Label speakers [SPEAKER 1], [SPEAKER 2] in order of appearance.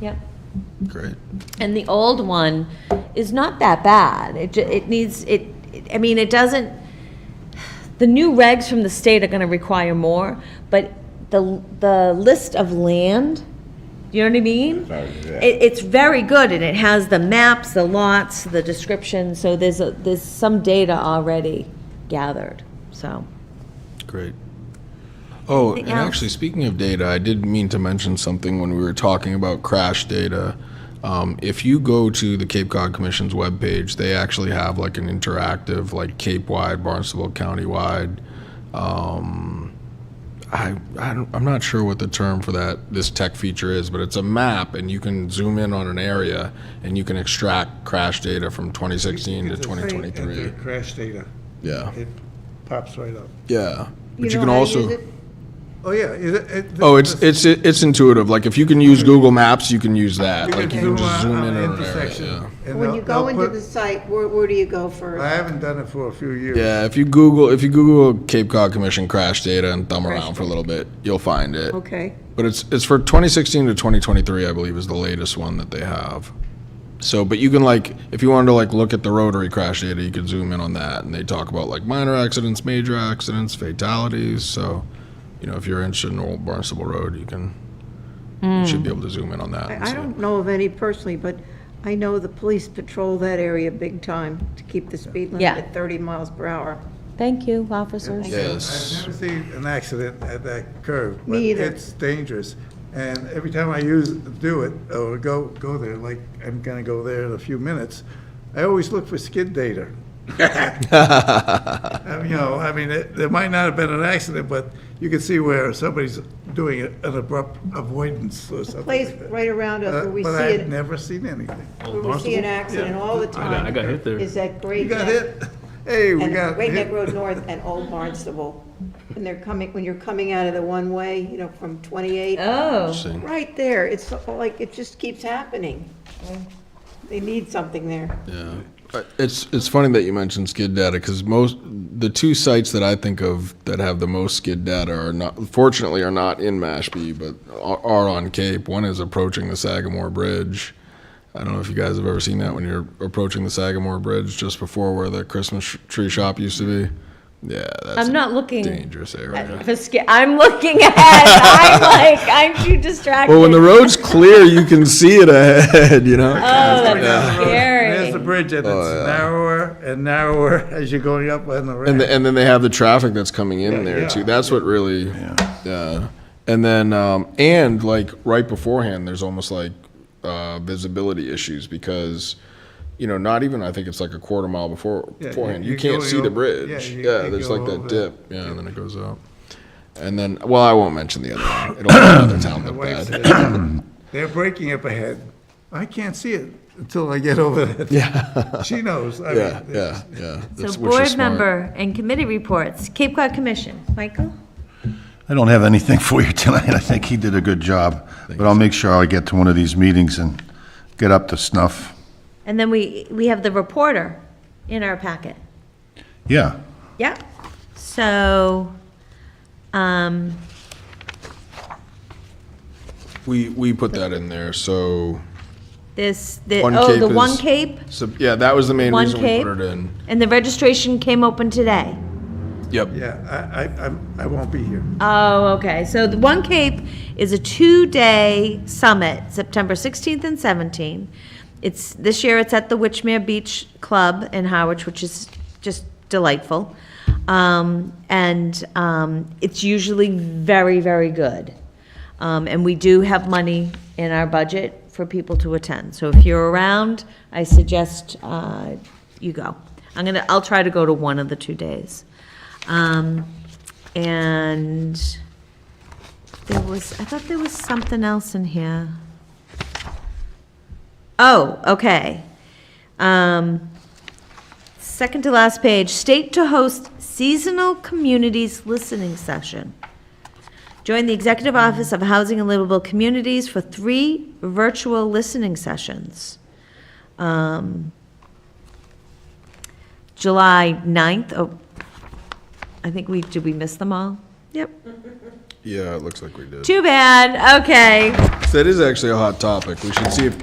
[SPEAKER 1] Yep.
[SPEAKER 2] Great.
[SPEAKER 1] And the old one is not that bad. It, ju- it needs, it, it- I mean, it doesn't, the new regs from the state are gonna require more, but the, the list of land, you know what I mean? It, it's very good, and it has the maps, the lots, the description, so there's, a there's some data already gathered, so.
[SPEAKER 2] Great. Oh, and
[SPEAKER 1] Anything else?
[SPEAKER 2] actually, speaking of data, I did mean to mention something when we were talking about crash data. Um, if you go to the Cape Cod Commission's webpage, they actually have like an interactive, like Cape wide, Barnstable County wide. Um, I, I don't, I'm not sure what the term for that this tech feature is, but it's a map, and you can zoom in on an area, and you can extract crash data from 2016 to
[SPEAKER 3] Just enter
[SPEAKER 2] 2023.
[SPEAKER 3] Crash data,
[SPEAKER 2] Yeah,
[SPEAKER 3] it pops right up.
[SPEAKER 2] yeah. But you
[SPEAKER 1] know
[SPEAKER 2] can
[SPEAKER 1] how to
[SPEAKER 2] also.
[SPEAKER 1] use it?
[SPEAKER 3] Oh, yeah, is it- it?
[SPEAKER 2] Oh, it's it's it's intuitive. Like if you can use Google Maps, you can use that. Like you can just zoom in on an area.
[SPEAKER 3] intersection.
[SPEAKER 2] Yeah.
[SPEAKER 3] and
[SPEAKER 4] When
[SPEAKER 3] they'll-
[SPEAKER 4] you go
[SPEAKER 3] they'll
[SPEAKER 4] into
[SPEAKER 3] put-
[SPEAKER 4] the site, where, where do you go first?
[SPEAKER 3] I haven't done it for a few years.
[SPEAKER 2] Yeah, if you Google if you Google Cape Cod Commission crash data and thumb
[SPEAKER 1] Crash
[SPEAKER 2] around for a little bit, you'll find it.
[SPEAKER 4] Okay.
[SPEAKER 2] But it's it's for 2016 to 2023, I believe, is the latest one that they have. So, but you can like if you wanted to like look at the rotary crash data, you could zoom in on that, and they talk about like minor accidents, major accidents, fatalities. So, you know, if you're interested in Old Barnstable Road, you can you should be able to zoom in on that. and
[SPEAKER 4] I, I
[SPEAKER 2] see.
[SPEAKER 4] don't know of any personally, but I know the police patrol that area big time to keep the speed limit
[SPEAKER 1] Yeah.
[SPEAKER 4] at 30 miles per hour.
[SPEAKER 1] Thank you, officers.
[SPEAKER 2] Yes.
[SPEAKER 3] I've never seen an accident at that curve.
[SPEAKER 4] Me
[SPEAKER 3] but
[SPEAKER 4] either.
[SPEAKER 3] It's dangerous. And every time I use, do it, or go, go there, like, I'm gonna go there in a few minutes, I always look for skid data. I mean, You know, I mean, it- there might not have been an accident, but you can see where somebody's doing a- an abrupt avoidance or something
[SPEAKER 4] Place
[SPEAKER 3] like that.
[SPEAKER 4] right around us
[SPEAKER 3] Uh,
[SPEAKER 4] where we see
[SPEAKER 3] But I've
[SPEAKER 4] it,
[SPEAKER 3] never seen anything.
[SPEAKER 4] where we see an accident all the
[SPEAKER 5] I got, I
[SPEAKER 4] time.
[SPEAKER 5] got hit there.
[SPEAKER 4] Is that Great
[SPEAKER 3] You got
[SPEAKER 4] Neck-
[SPEAKER 3] hit? Hey, we
[SPEAKER 4] And
[SPEAKER 3] got
[SPEAKER 4] Great Neck
[SPEAKER 3] hit.
[SPEAKER 4] Road North and Old Barnstable. When they're coming, when you're coming out of the one-way, you know, from 28.
[SPEAKER 1] Oh,
[SPEAKER 2] Interesting.
[SPEAKER 4] Right there, it's like, it just keeps happening. They need something there.
[SPEAKER 2] Yeah. Uh, It's, it's funny that you mentioned skid data because most, the two sites that I think of that have the most skid data are not, fortunately are not in Mashpee, but are, are on Cape. One is approaching the Sagamore Bridge. I don't know if you guys have ever seen that when you're approaching the Sagamore Bridge just before where the Christmas sh- tree shop used to be. Yeah, that's
[SPEAKER 1] I'm
[SPEAKER 2] a
[SPEAKER 1] not looking.
[SPEAKER 2] dangerous area.
[SPEAKER 1] For sk- I'm looking ahead. I'm like, I'm too distracted.
[SPEAKER 2] Well, when the road's clear, you can see it ahead, you know?
[SPEAKER 1] oh, that's
[SPEAKER 3] There's the
[SPEAKER 1] scary.
[SPEAKER 3] bridge, and
[SPEAKER 2] Oh,
[SPEAKER 3] it's narrower and narrower as you're going up on the ramp.
[SPEAKER 2] And, the, and then they have the traffic that's coming in there
[SPEAKER 3] yeah.
[SPEAKER 2] too. That's what really. Yeah. And then um, and like right beforehand, there's almost like uh, visibility issues because you know not even I think it's like a quarter mile before
[SPEAKER 3] Yeah,
[SPEAKER 2] beforehand
[SPEAKER 3] you-
[SPEAKER 2] you,
[SPEAKER 3] you
[SPEAKER 2] can't
[SPEAKER 3] go-
[SPEAKER 2] see the
[SPEAKER 3] you-
[SPEAKER 2] bridge.
[SPEAKER 3] yeah,
[SPEAKER 2] Yeah,
[SPEAKER 3] you- you
[SPEAKER 2] there's
[SPEAKER 3] go
[SPEAKER 2] like that
[SPEAKER 3] over.
[SPEAKER 2] dip. Yeah, and then it goes up. And then well, I won't mention the other one. It'll make another town
[SPEAKER 3] My
[SPEAKER 2] look
[SPEAKER 3] wife
[SPEAKER 2] bad.
[SPEAKER 3] said, They're breaking up ahead. I can't see it until I get over it. Yeah. She knows. I
[SPEAKER 2] Yeah,
[SPEAKER 3] mean,
[SPEAKER 2] yeah,
[SPEAKER 1] So
[SPEAKER 2] yeah. That's- which is
[SPEAKER 1] board
[SPEAKER 2] smart.
[SPEAKER 1] member and committee reports, Cape Cod Commission, Michael?
[SPEAKER 6] I don't have anything for you tonight. I think he did a good job, but I'll make sure I get to one of these meetings and get up to snuff.
[SPEAKER 1] And then we, we have the reporter in our packet.
[SPEAKER 6] Yeah,
[SPEAKER 1] Yep. So, um,
[SPEAKER 2] We we put that in there so.
[SPEAKER 1] this, the,
[SPEAKER 2] One
[SPEAKER 1] oh,
[SPEAKER 2] Cape
[SPEAKER 1] the One
[SPEAKER 2] is-
[SPEAKER 1] Cape,
[SPEAKER 2] So, yeah, that was the main
[SPEAKER 1] One
[SPEAKER 2] reason
[SPEAKER 1] Cape?
[SPEAKER 2] we put it in.
[SPEAKER 1] and the registration came open today.
[SPEAKER 2] Yep.
[SPEAKER 3] Yeah, I, I, I'm- I won't be here.
[SPEAKER 1] Oh, okay. So the One Cape is a two-day summit, September 16th and 17th. It's, this year it's at the Witchmere Beach Club in Harwich, which is just delightful. Um, and, um, it's usually very, very good. Um, and we do have money in our budget for people to attend. So if you're around, I suggest, uh, you go. I'm gonna, I'll try to go to one of the two days. Um, and there was, I thought there was something else in here. Oh, okay. Um, second to last page, state to host seasonal communities listening session. Join the Executive Office of Housing and Livable Communities for three virtual listening sessions. Um, July 9th, oh, I think we, did we miss them all? Yep.
[SPEAKER 2] Yeah, it looks like we did.
[SPEAKER 1] Too bad, okay.
[SPEAKER 2] That is actually a hot topic. We should see if